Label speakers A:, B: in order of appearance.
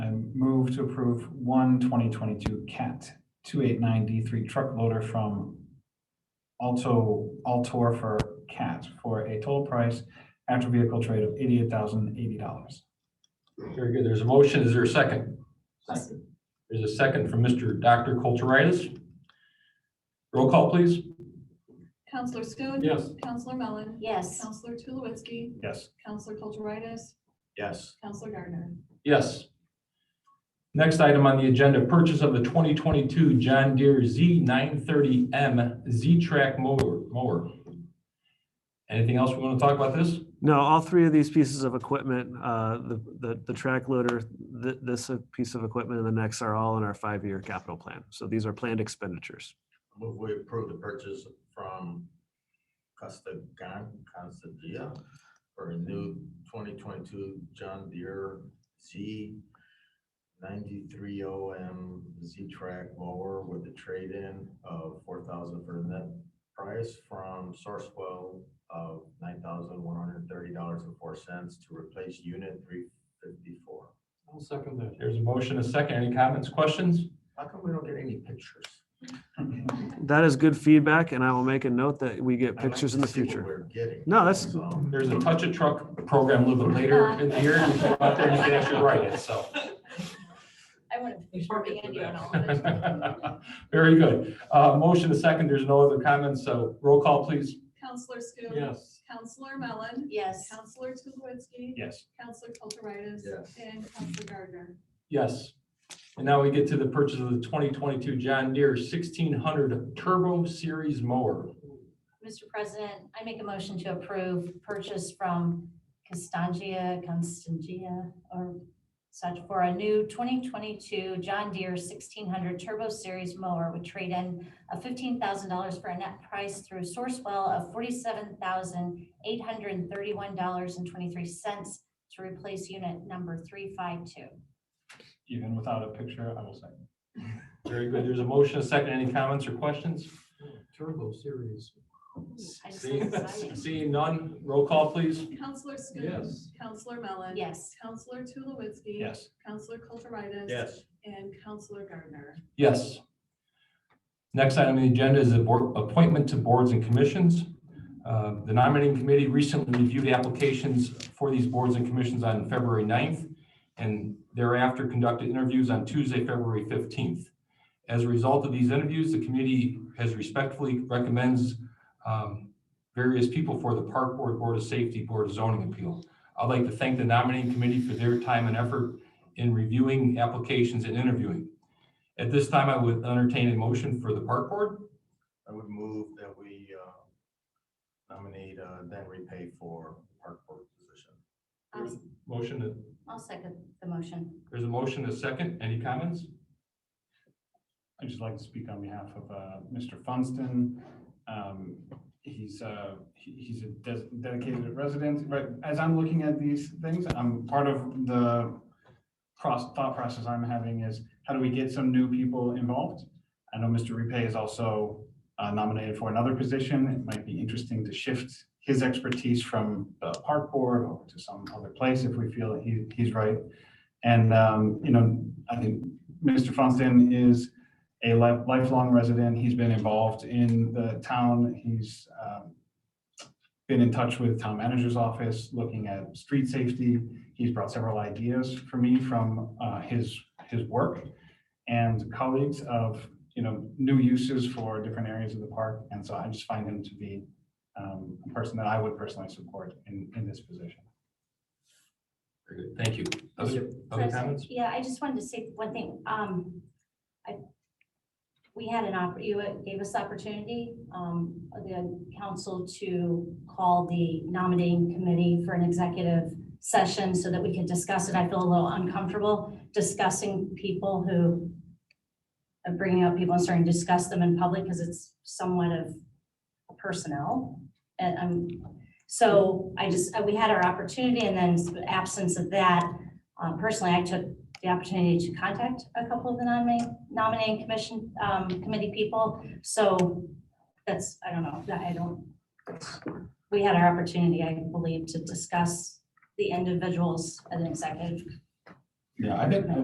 A: move to approve one 2022 Cat 289D3 truck loader from Alto, Altor for Cat for a total price after vehicle trade of $88,080.
B: Very good. There's a motion. Is there a second?
C: Second.
B: There's a second from Mr. Dr. Kulturitis. Roll call, please.
D: Counselor Schoen.
B: Yes.
D: Counselor Mellon.
C: Yes.
D: Counselor Tulowitzki.
A: Yes.
D: Counselor Kulturitis.
E: yes,
D: Counselor Gardner.
B: Yes. Next item on the agenda, purchase of the 2022 John Deere Z930M Z-Track mower. mower. Anything else we want to talk about this?
F: No, all three of these pieces of equipment, uh, the, the, the track loader, th- this uh, piece of equipment and the next are all in our five-year capital plan. So these are planned expenditures.
E: move we approve the purchase from Costagan, Constantia for a new twenty twenty-two John Deere Z ninety-three O M Z-Track mower with a trade-in of four thousand for net price from Sourcewell of nine thousand one hundred thirty dollars and four cents to replace unit three fifty-four.
B: I'll second that. There's a motion, a second. Any comments, questions?
E: How come we don't get any pictures?
F: That is good feedback and I will make a note that we get
E: I'd like
F: pictures
E: to
F: in the
E: see what
F: future.
E: We're getting. Um,
F: No, that's-
E: So,
B: There's a touch a truck program a little bit later in the year. You go out there and you can actually write it, so.
C: I want to.
B: Very good. Uh, motion a second. There's no other comments, so roll call, please.
D: Counselor Schoen. Counselor Mellon.
C: Yes.
D: Counselor Tulowitzki.
A: Yes.
D: Counselor Kulturitis.
E: Yes.
D: And Counselor Gardner.
B: Yes. And now we get to the purchase of the twenty twenty-two John Deere sixteen hundred Turbo Series mower.
C: Mr. President, I make a motion to approve purchase from Constantia, Constantia, or such for a new 2022 John Deere 1600 Turbo Series mower with trade-in of $15,000 for a net price through Sourcewell of $47,831.23 to replace unit number 352.
A: Even without a picture, I will say.
B: Very good. There's a motion a second. Any comments or questions?
G: Turbo Series.
C: I just
B: Seeing-
C: said exciting.
B: Seeing none, roll call, please.
D: Counselor Schoen. Counselor Mellon.
C: Yes.
D: Counselor Tulowitzki.
A: Yes.
D: Counselor Kulturitis.
E: Yes,
D: And Counselor Gardner.
B: Yes. Next item on the agenda is a board, appointment to boards and commissions. Uh, The nominating committee recently reviewed applications for these boards and commissions on February 9th and thereafter conducted interviews on Tuesday, February 15th. As a result of these interviews, the committee has respectfully recommends um, various people for the Park Board, Board of Safety, Board of Zoning Appeal. I'd like to thank the nominating committee for their time and effort in reviewing applications and interviewing. At this time, I would entertain a motion for the park board.
E: I would move that we uh, nominate uh, Dan Repay for park board position.
C: I'll-
B: Motion,
C: I'll second the motion.
B: there's a motion, a second. Any comments?
A: I'd just like to speak on behalf of uh, Mr. Funston. Um, He's, uh, he- he's a des- dedicated resident, but as I'm looking at these things, I'm, part of the cross, thought process I'm having is, how do we get some new people involved? I know Mr. Repay is also uh, nominated for another position. It might be interesting to shift his expertise from the park board over to some other place if we feel he, he's right. And, um, you know, I think Mr. Funston is a li- lifelong resident. He's been involved in the town. He's um, been in touch with town manager's office, looking at street safety. He's brought several ideas for me from uh, his, his work and colleagues of, you know, new uses for different areas of the park. And so I just find him to be um, a person that I would personally support in, in this position.
B: Very good. Thank you. Other other
C: President,
B: comments?
C: Yeah, I just wanted to say one thing. Um, I, we had an opp, you gave us the opportunity, um, of the council to call the nominating committee for an executive session so that we could discuss it. I feel a little uncomfortable discussing people who of bringing up people and starting to discuss them in public because it's somewhat of personnel. And um, so I just, uh, we had our opportunity and then absence of that, um, personally, I took the opportunity to contact a couple of the nominating, nominating commission, um, committee people. So that's, I don't know, I don't, we had our opportunity, I believe, to discuss the individuals at an executive
A: Yeah, I think,